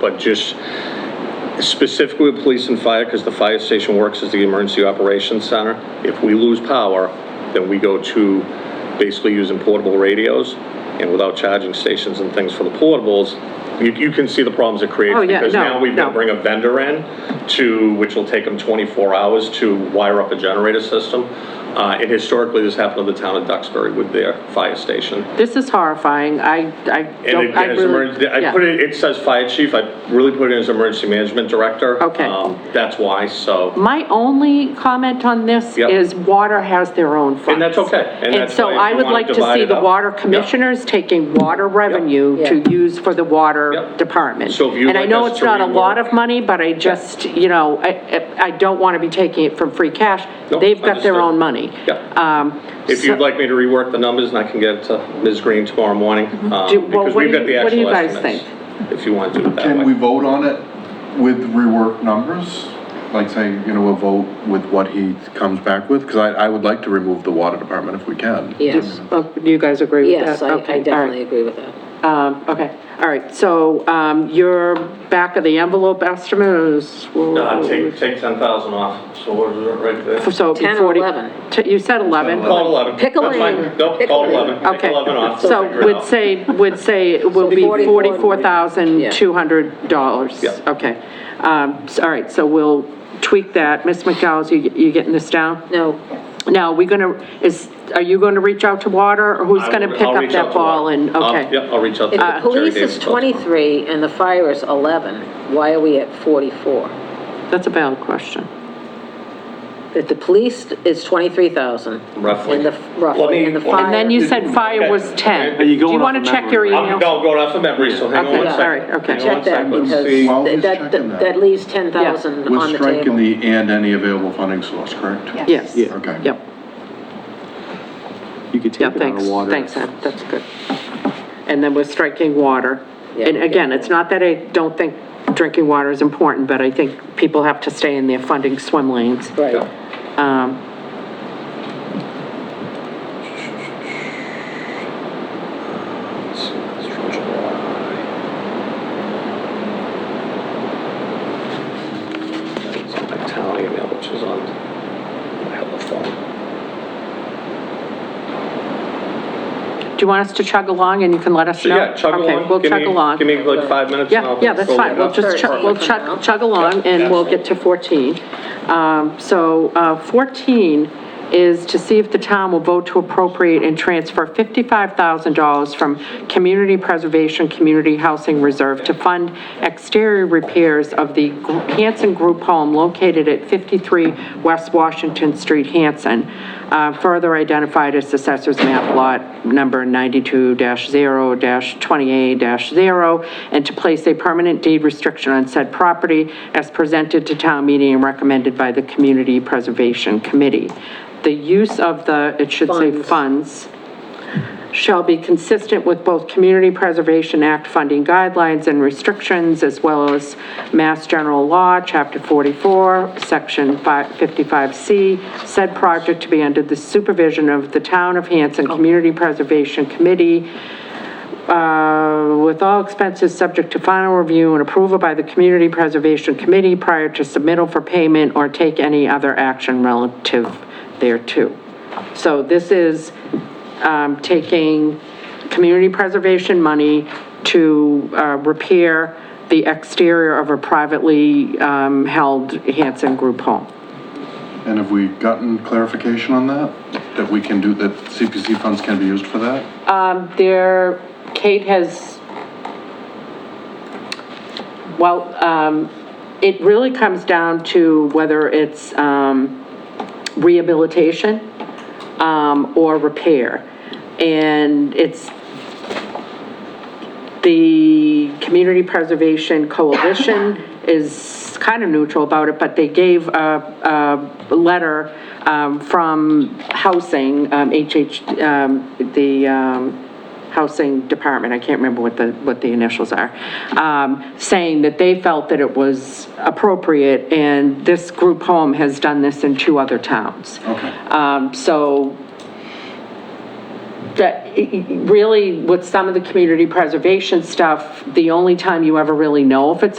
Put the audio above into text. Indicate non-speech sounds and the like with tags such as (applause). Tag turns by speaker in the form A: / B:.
A: but just specifically with police and fire, because the fire station works as the emergency operations center. If we lose power, then we go to basically using portable radios and without charging stations and things for the portables. You, you can see the problems it creates.
B: Oh, yeah,
A: Because
B: no,
A: now we've got to
B: no.
A: bring a vendor in to, which will take them 24 hours to wire up a generator system. Uh, and historically, this happened to the town of Duxbury with their fire station.
B: This is horrifying. I, I
A: And
B: don't, I
A: again, as
B: really.
A: emergency, I
B: yeah.
A: put it, it says fire chief, I really put it as emergency management director.
B: Okay.
A: Um, That's why, so,
B: My only comment on this
A: Yep.
B: is water has their own funds.
A: that's okay, and that's
B: so
A: why if
B: I
A: you
B: would
A: wanna
B: like to
A: divide
B: see
A: it
B: the
A: up.
B: water
A: Yep.
B: commissioners taking water revenue to use for the water
A: Yep.
B: department.
A: So if you'd
B: And I
A: like
B: know
A: us
B: it's
A: to
B: not a lot
A: rework-
B: of money, but I just, you know, I, I- I don't want to be taking it from free cash.
A: Nope,
B: They've got
A: understood.
B: their own money.
A: Yep.
B: Um,
A: if
B: so-
A: you'd like me to rework the numbers, and I can get it to Ms. Green tomorrow morning. um,
B: Mm-hmm. Do- well,
A: because
B: what
A: we've
B: do
A: got
B: you-
A: the
B: what do you
A: actual
B: guys
A: estimates, If you want to do it that
C: Can we
A: way.
C: vote on it with reworked numbers? Like say, you know, we'll vote with what he comes back with? Because I, I would like to remove the water department if we can.
D: Yes,
B: Oh, Do you guys agree with that?
D: yes, I
B: Okay, all
D: I
B: right.
D: definitely agree with that.
B: Um, okay, all right, so, um, your back of the envelope estimate is,
A: Uh, take, take 10,000 off, so what is it right there?
B: so it'd be
D: 10 or
B: 40
D: 11.
B: T- You said 11?
A: Call 11.
D: Pick a
A: That's fine.
D: lane.
A: Nope,
D: Pick a
A: call
D: lane.
A: 11, pick
B: Okay.
A: 11 off.
B: So
A: Figure it
B: would
A: out.
B: say, would say it will
D: be
B: be
D: 44.
B: $44,200.
A: Yeah.
B: Okay, um, s- all right, so we'll tweak that. Ms. McDowell's, you, you getting this down?
D: No,
B: Now, we gonna, is, are you gonna reach out to water, or who's
A: I
B: gonna
A: will-
B: pick
A: I'll
B: up
A: reach out
B: that
A: to
B: ball
A: Laura.
B: and,
A: I'll-
B: okay? Uh,
A: Yeah, I'll reach out to
D: if the
A: Uh, Jerry
D: police
A: Davis
D: is
A: tomorrow.
D: 23 and the fire is 11, why are we at 44?
B: That's a valid question.
D: If the police is 23,000.
A: Roughly.
D: And the,
A: Let me-
D: roughly, and the
A: let me-
D: fire.
B: And then you said fire
A: Okay.
B: was 10.
E: you
A: Are
B: Do you
E: going
B: want
E: off
B: to
E: of
B: check your
E: memory?
A: I'm,
B: email?
A: no, going off the memory, so hang on
B: Okay,
A: one
B: all
A: second.
B: right, okay.
A: Hang on one
D: Check that,
A: second, let's
D: because
A: see.
C: While he's
D: that,
C: checking that.
D: that- that leaves 10,000
C: We're
D: on the
C: striking
D: table.
C: the and any available funding source, correct?
B: Yes.
E: Yeah.
C: Okay.
B: Yep,
E: You could
B: yeah,
E: take it out
B: thanks,
E: of water.
B: thanks, Ed, that's good. And then we're striking water.
D: Yeah.
B: And again, it's not that I don't think drinking water is important, but I think people have to stay in their funding swim lanes.
D: Right.
B: Um,
A: Let's see, that's from July. It's on my town email, which is on my hella phone.
B: Do you want us to chug along and you can let us
A: So
B: know?
A: yeah, chug along.
B: Okay, we'll
A: Give
B: chug
A: me-
B: along.
A: Give me like five minutes. and
B: Yeah,
A: I'll
B: yeah, that's
A: go
B: fine,
A: look
B: we'll
A: up.
B: just chug,
D: Perfect.
B: we'll chug, chug along,
A: Yeah,
B: and we'll get to 14. Um, So uh, 14 is to see if the town will vote to appropriate and transfer $55,000 from Community Preservation Community Housing Reserve to fund exterior repairs of the Gr- Hanson Group Home located at 53 West Washington Street, Hanson, uh, further identified as Assessor's Map Lot Number 92-0-28-0, and to place a permanent deed restriction on said property as presented to town meeting and recommended by the Community Preservation Committee. The use of the, it should say funds, shall be consistent with both Community Preservation Act funding guidelines and restrictions, as well as Mass General Law, Chapter 44, Section 55C, said project to be under the supervision of the Town of Hanson Community Preservation Committee, uh, with all expenses subject to final review and approval by the Community Preservation Committee prior to submittal for payment or take any other action relative thereto. So this is um, taking community preservation money to uh, repair the exterior of a privately um, held Hanson Group home.
C: And have we gotten clarification on that? That we can do, that CPC funds can be used for that?
B: There, Um, Kate has, well, um, it really comes down to whether it's um, rehabilitation um, or repair. And it's the Community Preservation Coalition (coughs) is kind of neutral about it, but they gave a, a letter um, from Housing, um, HH, um, the um, Housing Department, I can't remember what the, what the initials are, um, saying that they felt that it was appropriate, and this group home has done this in two other towns.
C: Okay.
B: Um, So Um, that, really, with some of the community preservation stuff, the only time you ever really know if it's a